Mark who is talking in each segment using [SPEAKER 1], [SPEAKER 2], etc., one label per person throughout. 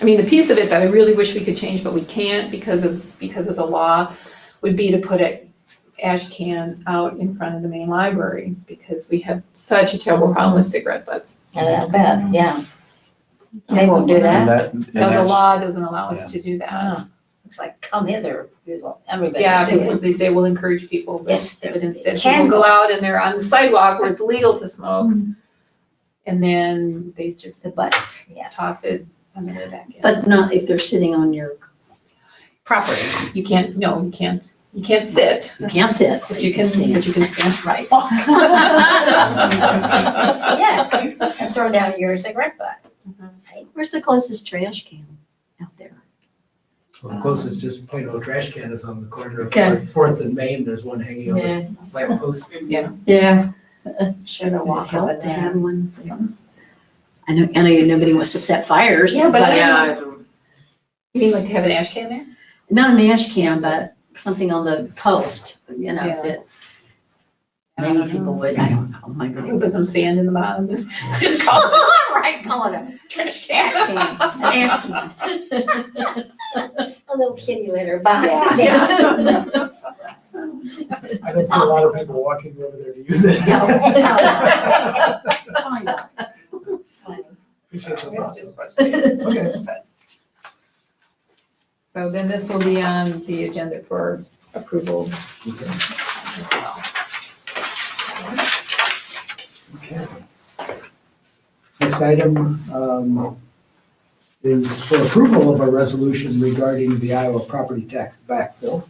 [SPEAKER 1] I mean, the piece of it that I really wish we could change, but we can't because of, because of the law, would be to put a ash can out in front of the main library, because we have such a terrible problem with cigarette butts.
[SPEAKER 2] I bet, yeah. They won't do
[SPEAKER 3] And
[SPEAKER 2] that.
[SPEAKER 3] that, and
[SPEAKER 1] No, the
[SPEAKER 3] that's-
[SPEAKER 1] law doesn't allow us to do that.
[SPEAKER 2] Oh, Looks like come hither, you know, everybody.
[SPEAKER 1] Yeah,
[SPEAKER 2] do it.
[SPEAKER 1] because they say we'll encourage people, but
[SPEAKER 2] Yes,
[SPEAKER 1] but
[SPEAKER 2] there's.
[SPEAKER 1] instead people
[SPEAKER 2] can
[SPEAKER 1] go out and they're on the sidewalk where it's legal to smoke. And then they just
[SPEAKER 2] The butts, yeah.
[SPEAKER 1] toss it on the way back in.
[SPEAKER 4] But not if they're sitting on your property.
[SPEAKER 1] You can't, no, you can't, you can't sit,
[SPEAKER 4] You can't sit,
[SPEAKER 1] but you can, but you can stand.
[SPEAKER 4] Right.
[SPEAKER 2] Yeah, you can throw down your cigarette butt.
[SPEAKER 4] Where's the closest trash can out there?
[SPEAKER 5] Well, The closest just plain old trash can is on the corner of
[SPEAKER 4] Okay.
[SPEAKER 5] Fourth- Fourth and Main, there's one hanging on the lamp post.
[SPEAKER 4] Yeah.
[SPEAKER 2] Should have
[SPEAKER 4] Would it
[SPEAKER 2] walked up
[SPEAKER 4] help
[SPEAKER 2] and
[SPEAKER 4] to
[SPEAKER 2] down.
[SPEAKER 4] have one? I know, I know nobody wants to set fires.
[SPEAKER 1] Yeah, but I
[SPEAKER 4] uh,
[SPEAKER 1] You mean like to have an ash can there?
[SPEAKER 4] Not an ash can, but something on the coast, you know,
[SPEAKER 1] Yeah.
[SPEAKER 4] that
[SPEAKER 1] I don't
[SPEAKER 4] many
[SPEAKER 1] know.
[SPEAKER 4] people would, I don't know, my
[SPEAKER 1] You
[SPEAKER 4] God.
[SPEAKER 1] put some sand in the bottom, and just call it
[SPEAKER 4] Right, call it a
[SPEAKER 1] a trash
[SPEAKER 4] ash
[SPEAKER 1] can.
[SPEAKER 4] can, an ash can.
[SPEAKER 2] A little kitty litter box.
[SPEAKER 4] Yeah.
[SPEAKER 2] Yeah.
[SPEAKER 5] I don't see a lot of people walking over there to use it.
[SPEAKER 4] No,
[SPEAKER 2] no.
[SPEAKER 4] Why not?
[SPEAKER 5] Appreciate
[SPEAKER 1] It's
[SPEAKER 5] the thought.
[SPEAKER 1] just frustrating.
[SPEAKER 5] Okay.
[SPEAKER 1] So then this will be on the agenda for approval as well.
[SPEAKER 5] Okay. Next item um, is for approval of a resolution regarding the Iowa property tax backfill.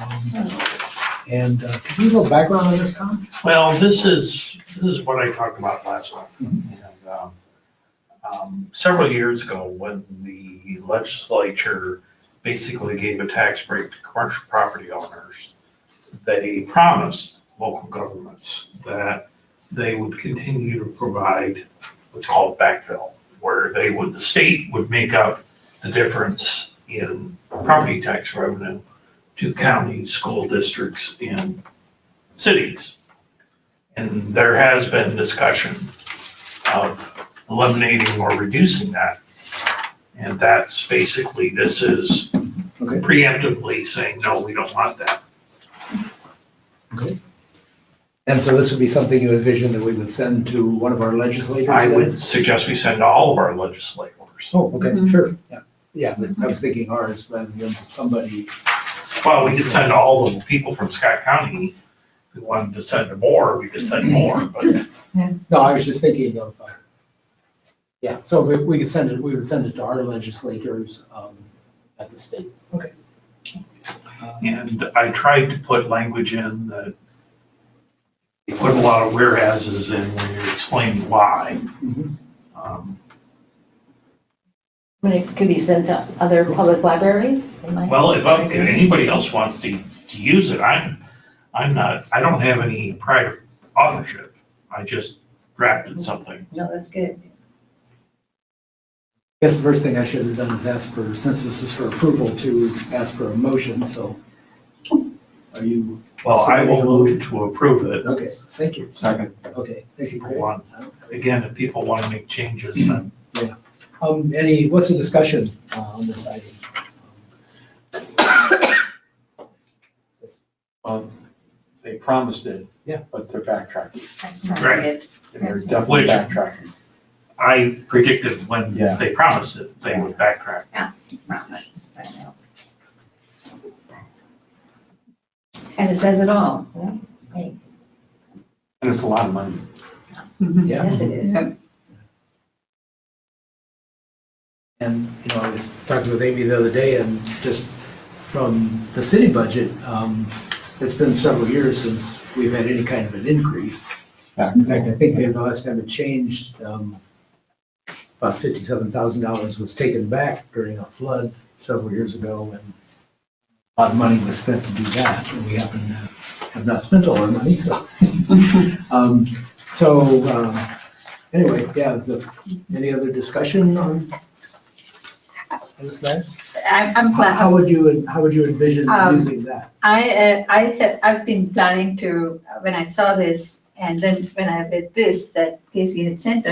[SPEAKER 5] Um, And uh, could you give a little background on this, Tom?
[SPEAKER 6] Well, this is, this is what I talked about last time. And, um, um, Several years ago, when the legislature basically gave a tax break to commercial property owners, they promised local governments that they would continue to provide what's called backfill, where they would, the state would make up the difference in property tax revenue to counties, school districts, and cities. And there has been discussion of eliminating or reducing that. And that's basically, this is
[SPEAKER 5] Okay.
[SPEAKER 6] preemptively saying, no, we don't want that.
[SPEAKER 5] And so this would be something you envision that we would send to one of our legislators?
[SPEAKER 6] I
[SPEAKER 5] then?
[SPEAKER 6] would suggest we send to all of our legislators.
[SPEAKER 5] Oh, okay,
[SPEAKER 1] Mhm.
[SPEAKER 5] sure, yeah. Yeah, but I was thinking ours rather than somebody,
[SPEAKER 6] Well, we could send to all the people from Scott County. If we wanted to send to more, we could send more, but
[SPEAKER 5] no, I was just thinking of, uh, yeah, so we, we could send it, we would send it to our legislators um, at the state. Okay.
[SPEAKER 6] And I tried to put language in that you put a lot of whereases in when you explain why.
[SPEAKER 5] Mhm.
[SPEAKER 6] Um,
[SPEAKER 2] I mean, it could be sent to other public libraries. they might.
[SPEAKER 6] Well, if, I- if anybody else wants to, to use it, I'm, I'm not, I don't have any prior authorship. I just drafted something.
[SPEAKER 2] No, that's good.
[SPEAKER 5] Guess the first thing I should have done is ask for, since this is for approval, to ask for a motion, so are you,
[SPEAKER 6] Well, I will move to approve it.
[SPEAKER 5] okay, thank you.
[SPEAKER 3] Second.
[SPEAKER 5] Okay, thank you.
[SPEAKER 6] People
[SPEAKER 5] Craig.
[SPEAKER 6] want, again, if people want to make changes, then
[SPEAKER 5] Um, any, what's the discussion uh, on this item?
[SPEAKER 3] Well, They promised it.
[SPEAKER 5] Yeah.
[SPEAKER 3] But they're backtracking,
[SPEAKER 6] Right.
[SPEAKER 3] and they're
[SPEAKER 6] Which-
[SPEAKER 3] definitely backtracking.
[SPEAKER 6] I predicted when
[SPEAKER 3] Yeah.
[SPEAKER 6] they promised it, they would backtrack.
[SPEAKER 2] Right, right now. And it says it all. yeah?
[SPEAKER 3] And it's a lot of money.
[SPEAKER 5] Yeah.
[SPEAKER 2] Yes, it is.
[SPEAKER 5] And, you know, I was talking with Amy the other day and just from the city budget, um, it's been several years since we've had any kind of an increase. In fact, I think maybe the last time it changed, um, about fifty-seven thousand dollars was taken back during a flood several years ago and a lot of money was spent to do that and we happen to have not spent all our money, so. Um, So, um, anyway, yeah, is there any other discussion on
[SPEAKER 7] I'm, I'm
[SPEAKER 5] How
[SPEAKER 7] glad.
[SPEAKER 5] how would you, how would you envision
[SPEAKER 7] Um,
[SPEAKER 5] using that?
[SPEAKER 7] I, uh, I had, I've been planning to, when I saw this, and then when I read this, that Casey had sent us,